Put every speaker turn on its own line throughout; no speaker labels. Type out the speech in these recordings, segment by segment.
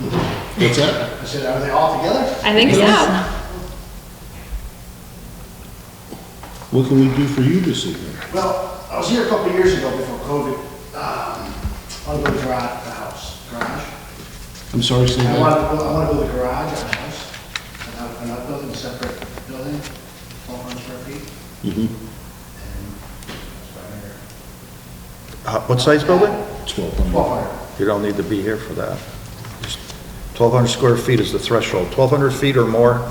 What's that?
I said, are they all together?
I think so.
What can we do for you this evening?
Well, I was here a couple of years ago before COVID, um, on the garage, the house, garage.
I'm sorry, say
I
that.
want to, I want to build a garage on a house, and not, and not building a separate building, twelve hundred square feet.
Mhm.
Uh, What size building?
Twelve
Twelve
hundred.
hundred,
You don't need to be here for that. Twelve hundred square feet is the threshold. Twelve hundred feet or more,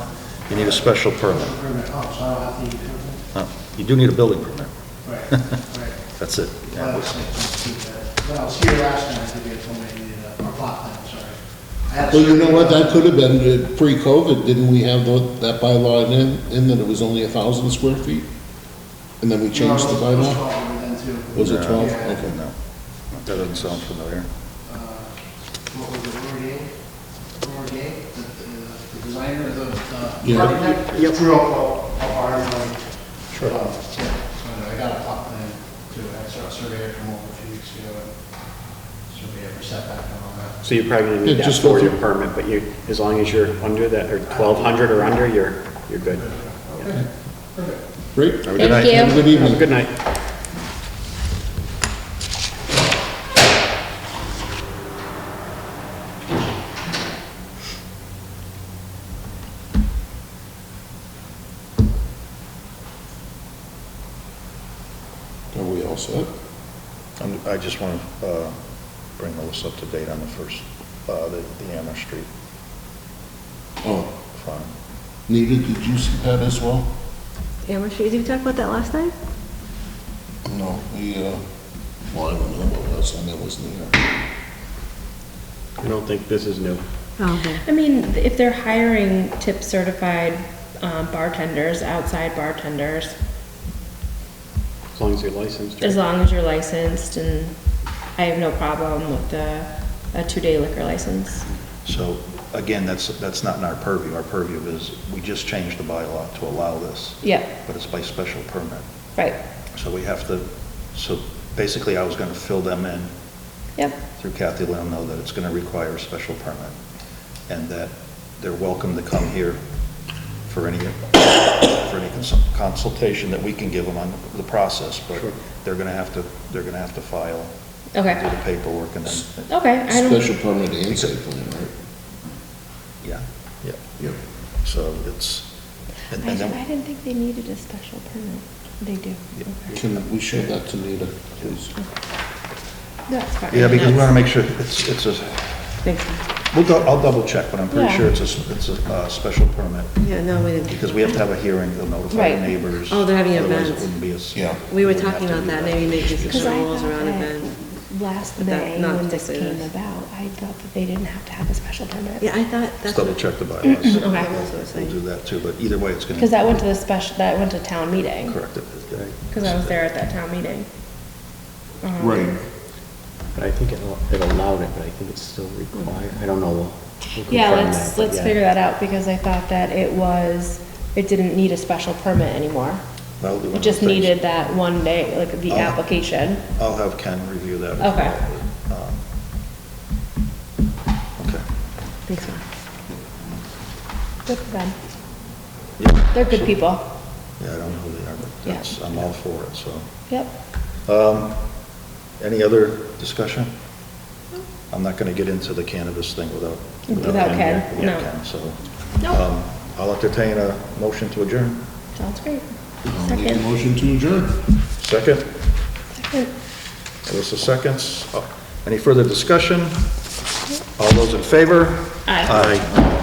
you need a special permit.
permanent home, so I don't have to use it.
No, You do need a building permit.
Right, right.
That's it.
But
Yeah,
I
we-
was thinking, keep that. When I was here last time, I think they told me I needed a, or plot plan, sorry. I had a
Well, you know
survey
what,
done.
that could have been, uh, pre-COVID, didn't we have tho- that bylaw in, in that it was only a thousand square feet? And then we
No, it
changed the
was- it was
bylaw?
12 then, too.
Was it
Yeah.
twelve?
Yeah.
Okay.
No, that doesn't sound familiar.
uh, what was it, Laurier? Laurier, the, the- the designer, the, the
Yeah.
architect? Drew up a, a barn, like.
Sure.
uh, Yeah, so I got a plot plan too, I saw a surveyor come over a few weeks ago and surveyor for setback and all that.
So you probably
Yeah,
need that
just go
for your
through.
permit, but you, as long as you're under that, or twelve hundred or under, you're, you're good.
Okay, perfect.
Great.
a good
Thank
night.
you.
Have a good
Have a
evening.
good night.
Are we all set?
I'm- I just want to bring Melissa up to date on the first, uh, the the Amherst Street
Oh,
farm.
Nita, did you see that as well?
Amherst Street, did we talk about that last night?
No, we, uh, well, I don't know about last time, I wasn't here.
I don't think this is new.
Oh, okay.
I mean, if they're hiring tip certified um, bartenders, outside bartenders,
As long as you're licensed.
as
right?
long as you're licensed, and I have no problem with the, a two-day liquor license.
So again, that's, that's not in our purview. Our purview is, we just changed the bylaw to allow this.
Yeah.
But it's by special permit.
Right,
So we have to, so basically I was going to fill them in
yep,
through Kathy Leno that it's going to require a special permit and that they're welcome to come here for any, for any cons- consultation that we can give them on the process. But
Sure.
they're going to have to, they're going to have to file, do
okay,
the paperwork and then,
okay, I don't,
Special permit and site plan, right?
yeah, yeah.
Yep.
So it's, and
I
and
I
then,
didn't think they needed a special permit, they do.
Yeah.
Okay.
Can we show that to Nita, please?
That's fine.
yeah, because we
That's-
want to make sure it's, it's a,
Makes sense.
we'll, dou- I'll double check, but I'm pretty
Yeah.
sure it's a, s- it's a uh, special permit.
Yeah, no, we didn't.
Because we have to have a hearing, they'll notify the
Right.
neighbors.
Oh, they're having an
Otherwise,
event.
it wouldn't be as.
Yeah.
We were
we'd have
talking
to
about
do
that, maybe making
Because
some
I
rules
thought
around
that
events.
Last
But that-
May,
not
when
this
this came
is.
about, I thought that they didn't have to have a special permit.
Yeah, I thought that's.
Let's double check the
that's
bylaws.
what I
Okay.
was gonna say.
We'll do that too, but either way, it's gonna.
Because that went to the special, that went to town meeting.
Correct it.
Because I was there at that town meeting. Um,
But I think it al- it allowed it, but I think it's still required. I don't know. We'll- we'll
Yeah,
confirm
let's,
that, but
let's
yeah.
figure that out, because I thought that it was, it didn't need a special permit anymore.
That'll be one
It
of
just
the things.
needed that one day, like the
Oh.
application.
I'll have Ken review that. as
Okay.
well. Um, Okay.
Thanks, Mark.
Good for them.
Yeah.
They're good people.
Yeah, I don't know who they are, but
Yeah.
that's, I'm all for it, so.
Yep.
Um, Any other discussion? I'm not going to get into the cannabis thing without.
Without Ken,
Without
no.
Ken, so.
Nope.
um, I'll entertain a motion to adjourn.
Sounds great.
I'll make a
Second,
motion to adjourn.
Second?
second.
Alyssa Oh, seconds. Any further discussion? All those in favor?
Aye.
Aye.